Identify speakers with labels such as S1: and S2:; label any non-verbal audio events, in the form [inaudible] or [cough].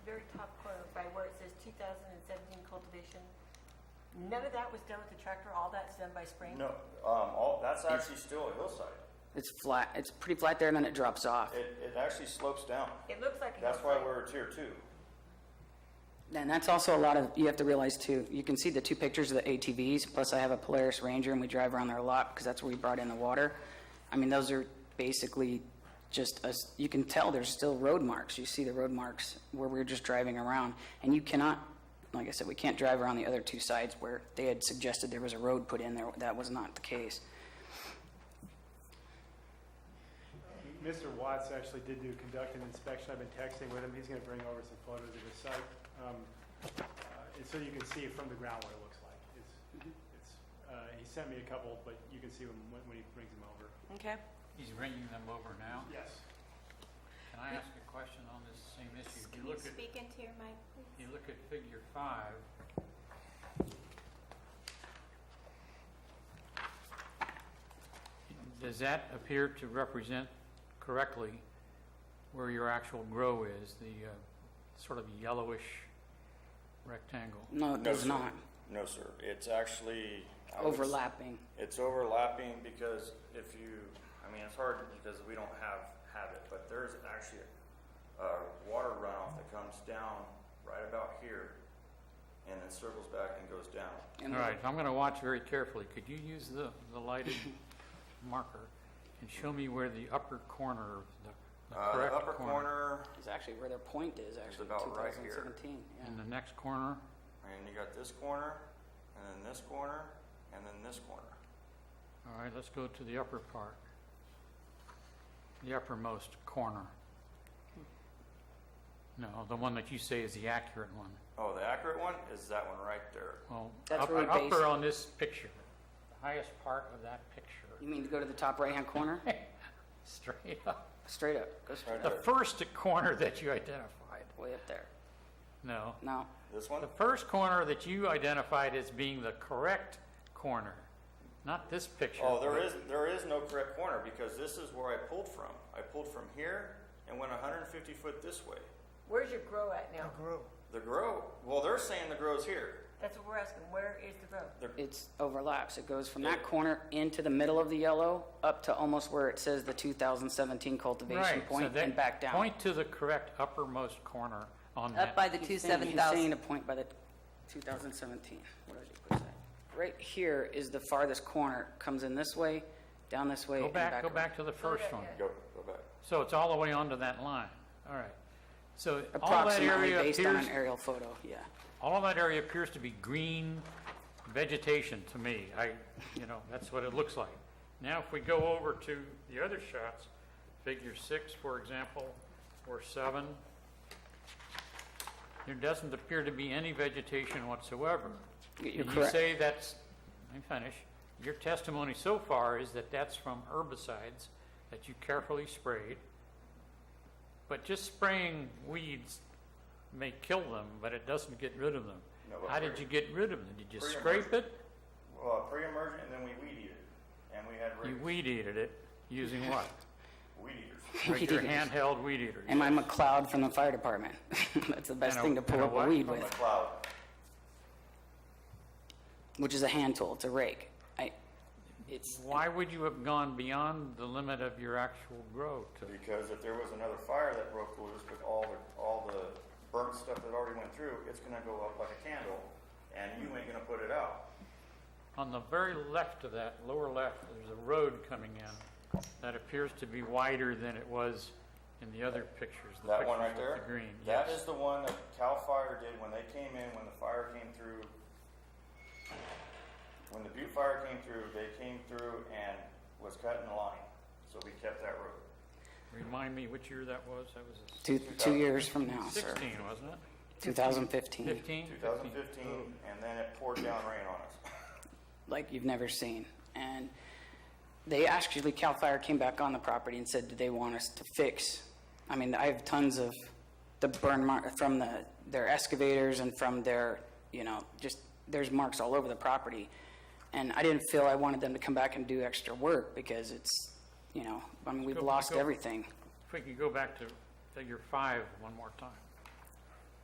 S1: thousand and seventeen cultivation, none of that was done with the tractor, all that's done by spraying?
S2: No, um, all, that's actually still a hillside.
S3: It's flat, it's pretty flat there and then it drops off.
S2: It, it actually slopes down.
S1: It looks like a
S2: That's why
S1: hillside.
S2: we're tier two.
S3: And that's also a lot of, you have to realize too, you can see the two pictures of the ATVs, plus I have a Polaris Ranger and we drive around there a lot because that's where we brought in the water. I mean, those are basically just, us- you can tell there's still road marks. You see the road marks where we were just driving around. And you cannot, like I said, we can't drive around the other two sides where they had suggested there was a road put in there. That was not the case.
S4: Mr. Watts actually did do, conduct an inspection, I've been texting with him, he's gonna bring over some photos of his site. Um, uh, And so you can see from the ground what it looks like. It's, it's, uh, he sent me a couple, but you can see them when, when he brings them over.
S1: Okay,
S5: He's bringing them over now.
S4: Yes.
S5: Can I ask a question on this same issue? If you look at,
S6: Speak into your mic, please.
S5: you look at figure five. Does that appear to represent correctly where your actual grow is, the uh, sort of yellowish rectangle?
S3: No, it
S2: No,
S3: does
S2: sir.
S3: not.
S2: No, sir. It's actually. I would s-
S3: Overlapping.
S2: It's overlapping because if you, I mean, it's hard because we don't have, have it, but there's actually a, a water runoff that comes down right about here and then circles back and goes down.
S3: And
S5: All right, I'm going to watch very carefully. Could you use the, the lighted marker and show me where the upper corner, of the- the
S2: Uh, the
S5: correct
S2: upper corner,
S3: It's actually where their point is, actually,
S2: about right here.
S3: 2017. yeah.
S5: And the next corner,
S2: and you got this corner, and then this corner, and then this corner.
S5: all right, let's go to the upper part. The uppermost corner. No, the one that you say is the accurate one.
S2: Oh, the accurate one is that one right there.
S5: Well,
S3: That's
S5: up-
S3: where we base it.
S5: upper on this picture, the highest part of that
S3: You
S5: picture,
S3: mean to go to the top right-hand corner?
S5: [laughs] straight up.
S3: Straight up, go straight
S2: Right
S5: The
S2: there.
S5: first corner that you identified,
S3: way up there.
S5: no.
S3: No,
S2: This one?
S5: The first corner that you identified as being the correct corner, not this picture.
S2: Oh, there is, there is no correct corner because this is where I pulled from. I pulled from here and went 150 foot this way.
S1: where's your grow at now?
S2: The grow, well, they're saying the grow's here.
S1: That's what we're asking, where is the grow?
S3: it's overlaps. It goes from that corner into the middle of the yellow up to almost where it says the 2017 cultivation
S5: Right, so
S3: point
S5: that-
S3: and back down.
S5: Point to the correct uppermost corner on
S7: Up by
S5: that.
S7: the two
S3: He's saying-
S7: seven
S3: He's saying
S7: thousand.
S3: a point by the 2017. Where did he put that? Right here is the farthest corner, comes in this way, down this way,
S5: Go
S3: and back.
S5: back, go
S3: around.
S5: back to the first one.
S2: Go, go back.
S5: So it's all the way onto that line. All right. So all that
S3: Approximately
S5: area
S3: based on an
S5: appears,
S3: aerial photo, yeah.
S5: all that area appears to be green vegetation to me. I, you know, that's what it looks like. Now, if we go over to the other shots, figure six, for example, or seven, there doesn't appear to be any vegetation whatsoever.
S3: You're
S5: And
S3: correct.
S5: You say that's, let me finish. Your testimony so far is that that's from herbicides that you carefully sprayed. But just spraying weeds may kill them, but it doesn't get rid of them.
S2: No, but
S5: How did
S2: pre-
S5: you get rid of them? Did you
S2: pre-
S5: scrape it?
S2: Well, pre-emergent and then we weed eater. And we had
S5: You
S2: rig-
S5: weed eated it
S2: [laughs]
S5: using what?
S2: weed eaters.
S3: Weed
S5: Regular
S3: eaters.
S5: handheld weed eater.
S3: And I'm a cloud from the fire department. [laughs] That's the best
S5: And a-
S3: thing to pull
S5: and a
S3: up a
S5: what?
S3: weed
S2: From
S3: with.
S2: the cloud.
S3: which is a hand tool, it's a rake. I, it's,
S5: Why would you have gone beyond the limit of your actual grow to?
S2: Because if there was another fire that broke loose with all the, all the burnt stuff that already went through, it's gonna go up like a candle and you ain't gonna put it out.
S5: On the very left of that, lower left, there's a road coming in that appears to be wider than it was in the other pictures. the
S2: That one right
S5: pictures with
S2: there?
S5: The green,
S2: That
S5: yes.
S2: is the one that Cal Fire did when they came in, when the fire came through. When the Butte Fire came through, they came through and was cutting the line, so we kept that road.
S5: Remind me which year that was? That was a
S3: two, two years from now, sir.
S5: 16, wasn't it?
S3: 2015,
S5: 15?
S2: 2015, and then it poured down rain on us.
S3: like you've never seen. And they actually, CAL FIRE came back on the property and said, do they want us to fix? I mean, I have tons of the burn mark, from the, their excavators and from their, you know, just, there's marks all over the property. And I didn't feel I wanted them to come back and do extra work because it's, you know, I mean, we've
S5: Go-
S3: lost
S5: go-
S3: everything.
S5: If we could go back to figure five one more time.